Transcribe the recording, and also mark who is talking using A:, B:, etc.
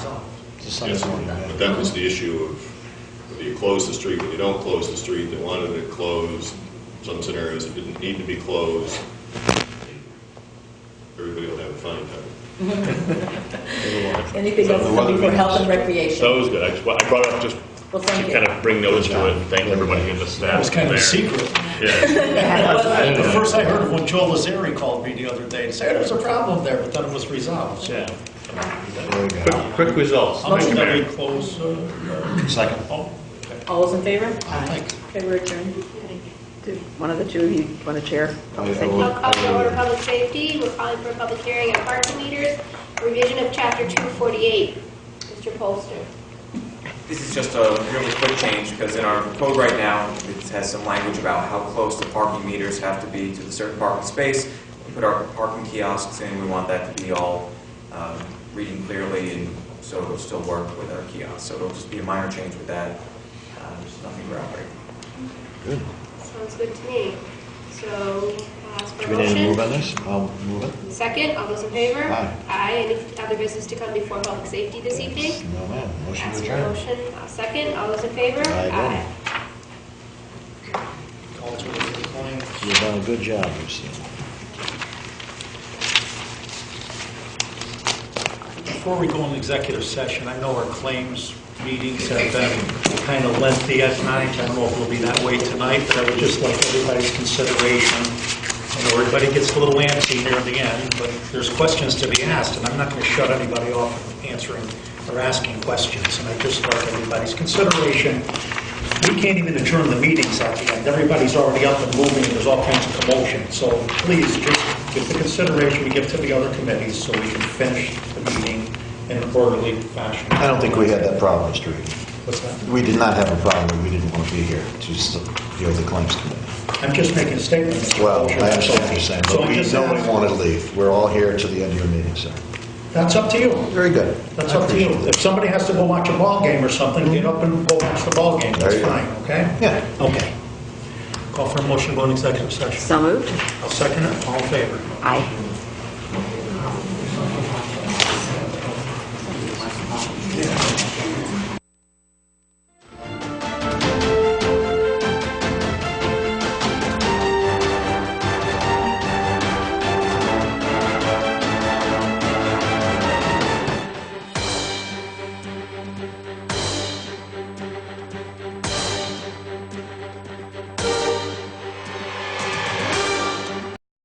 A: Just something
B: Yes,
A: more about
B: But that was the issue of whether you close the street, whether you don't close the street, they wanted it closed, some scenarios it didn't need to be closed. Everybody will have a fine time.
C: Anything else
D: The
C: is
D: weather
C: something for health and
D: meetings.
C: recreation?
D: That was good. I just, I brought it up just
C: Well,
D: to
C: thank you.
D: kind of bring notice to it and thank everybody in the staff.
E: That was kind of a
D: there.
E: secret.
D: Yeah.
E: The first I heard of when Joel Lazari called me the other day and said, there's a problem there, but then it was resolved, so.
D: Quick, quick results.
E: I'll
D: Thank
E: make
D: you,
E: that
D: Mayor.
E: we close, uh,
A: Second.
E: oh,
C: All those in favor?
E: thanks.
C: Okay, we're adjourned.
F: Did One of the two of you want to chair?
A: I- I
F: Thank you.
A: will-
G: I'll call to order public safety. We're calling for a public hearing on parking meters, revision of chapter 248. Mr. Polster.
H: This is just a really quick change, because in our code right now, it has some language about how close the parking meters have to be to the certain parking space. We put our parking kiosks in, we want that to be all um, reading clearly, and so it'll still work with our kiosks. So it'll just be a minor change with that, Uh, there's nothing groundbreaking.
G: Sounds good to me. So I'll ask
A: Do we
G: for a
A: need to move on
G: motion.
A: this? I'll move it.
G: Second, all those in favor?
A: Aye.
G: Any other business to come before public safety this evening?
A: No, ma'am. Motion to
G: Ask for a
A: adjourn.
G: motion. I'll Second, all those in favor?
A: Aye, aye.
E: Call to the claim.
A: You've done a good job, Lucille.
E: Before we go into executive session, I know our claims meetings have been kind of lengthy at night. I don't know if it'll be that way tonight, but I would just like everybody's consideration. I know everybody gets a little antsy near the end, but there's questions to be asked, and I'm not going to shut anybody off from answering or asking questions. And I just like everybody's consideration. We can't even adjourn the meetings at the end. Everybody's already up and moving, and there's all kinds of commotion. So please, just give the consideration we give to the other committees so we can finish the meeting in an orderly fashion.
I: I don't think we had that problem, Mr. Reed.
E: What's that?
I: We did not have a problem, we didn't want to be here to s- deal with the claims committee.
E: I'm just making a statement. Mr.
I: Well,
E: Wiltshire.
I: I understand what you're saying,
E: So
I: but
E: I'm
I: we,
E: just
I: nobody
E: asking-
I: wanted to leave. We're all here to the end of your meeting, sir.
E: That's up to you.
I: Very good.
E: That's
I: I
E: up to you.
I: appreciate
E: If
I: that.
E: somebody has to go watch a ball game or something, get up and go watch the ball game.
I: There
E: That's
I: you go.
E: fine, okay?
I: Yeah.
E: Okay. Call for a motion to go into executive session.
F: So moved?
E: I'll second it. All in favor?
F: Aye.